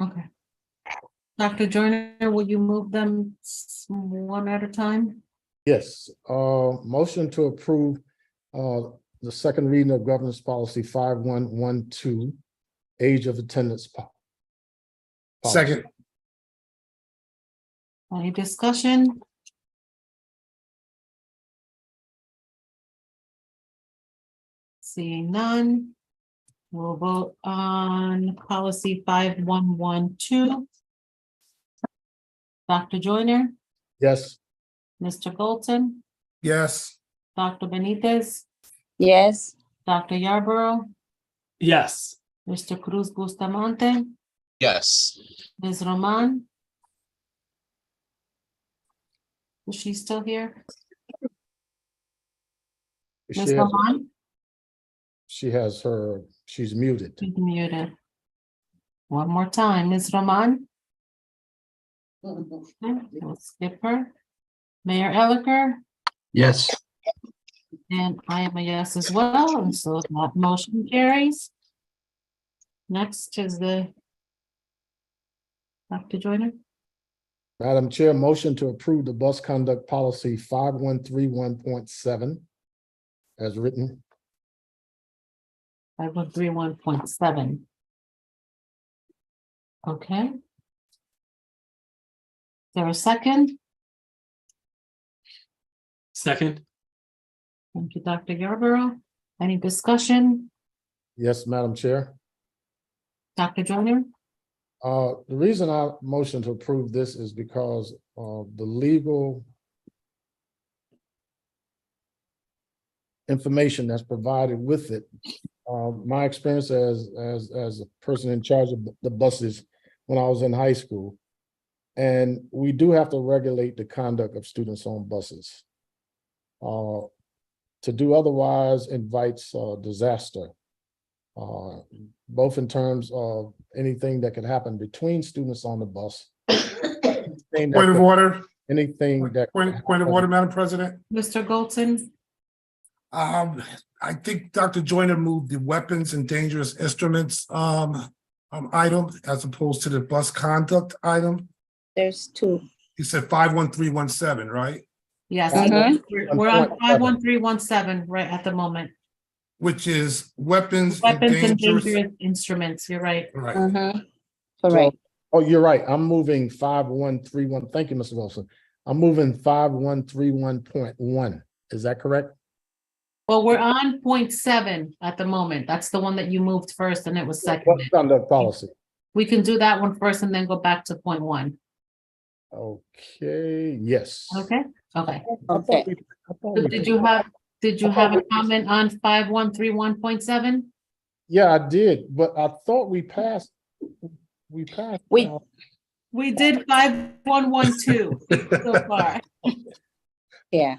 Okay. Dr. Joyner, will you move them s- one at a time? Yes, uh, motion to approve, uh, the second reading of governance policy five one one two, age of attendance. po- policy. Second. Any discussion? Seeing none. We'll vote on policy five one one two. Dr. Joyner, Yes, Mr. Bolton, Yes. Dr. Benitez, yes, Dr. Yarborough, yes, Mr. Cruz Bustamante, yes, Ms. Roman? Is she still here? she Ms. has, Roman, she has her, she's muted. she's muted. One more time, Ms. Roman? Okay, We'll skip her. Mayor Elicker, yes, and I am a yes as well, and so that motion carries. Next is the Dr. Joyner, Madam Chair, motion to approve the bus conduct policy five one three one point seven as written. five one three one point seven. Okay. Is There a second? second, Thank you, Dr. Yarborough. Any discussion? Yes, Madam Chair. Dr. Joyner? Uh, the reason I motion to approve this is because of the legal information that's provided with it. Uh, my experience as, as, as a person in charge of the buses when I was in high school. And we do have to regulate the conduct of students on buses. Uh, to do otherwise invites, uh, disaster. Uh, both in terms of anything that could happen between students on the bus. anything that Point of could- order, Anything that. could point, point of happen- order, Madam President. Mr. Golton? Um, I think Dr. Joyner moved the weapons and dangerous instruments, um, um, item as opposed to the bus conduct item. there's two. He said five, one, three, one, seven, right? Yes, Mhm. we're we're on five one three one seven right at the moment. Which is weapons and Weapons and dangerous. dangerous instruments, you're right. Right, Mhm. Correct, Oh, you're right. I'm moving five, one, three, one. Thank you, Mr. Wilson. I'm moving five, one, three, one point one. Is that correct? Well, we're on point seven at the moment. That's the one that you moved first and it was What seconded. conduct policy? We can do that one first and then go back to point one. Okay, yes. Okay, okay. I thought we- I thought we- Did you have, did you have a comment on five one three one point seven? Yeah, I did, but I thought we passed. We passed. We- uh, We did five one one two so far. yeah.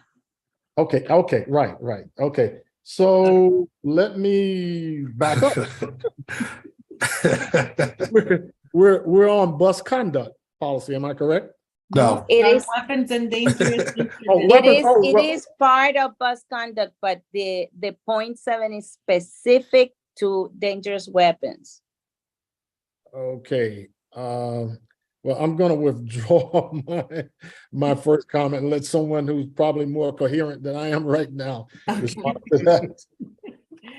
Okay, okay, right, right, okay. So let me back up. We're, we're, we're on bus conduct policy, am I correct? No, It On is, Weapons and dangerous. Oh, instruments. it weapons- is, oh, it weapons. is part of bus conduct, but the, the point seven is specific to dangerous weapons. Okay, um, well, I'm gonna withdraw my, my first comment and let someone who's probably more coherent than I am right now. respond to that.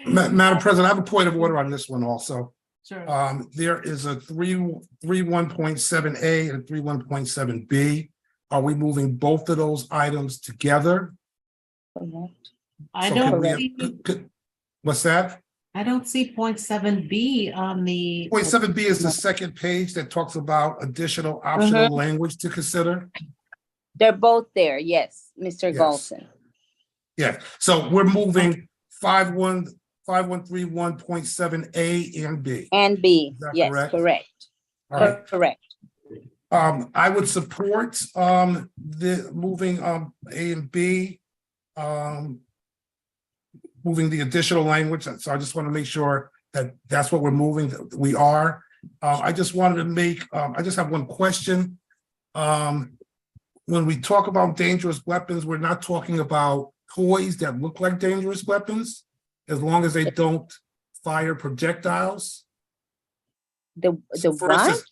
Ma- Madam President, I have a point of order on this one also. Sure. Um, there is a three, three one point seven A and three one point seven B. Are we moving both of those items together? Correct. I So could don't we have- see, could- could- What's that? I don't see point seven B on the. Point seven B is the second page that talks about additional optional language to consider. They're both there, yes, Mr. Yes. Golson. Yeah, so we're moving five one, five one three one point seven A and B. And B, Is that yes, correct? correct, All right, correct. Um, I would support, um, the, moving, um, A and B. Um. Moving the additional language, so I just want to make sure that that's what we're moving, that we are. Uh, I just wanted to make, um, I just have one question. Um, when we talk about dangerous weapons, we're not talking about toys that look like dangerous weapons. As long as they don't fire projectiles. The, the For us to- what?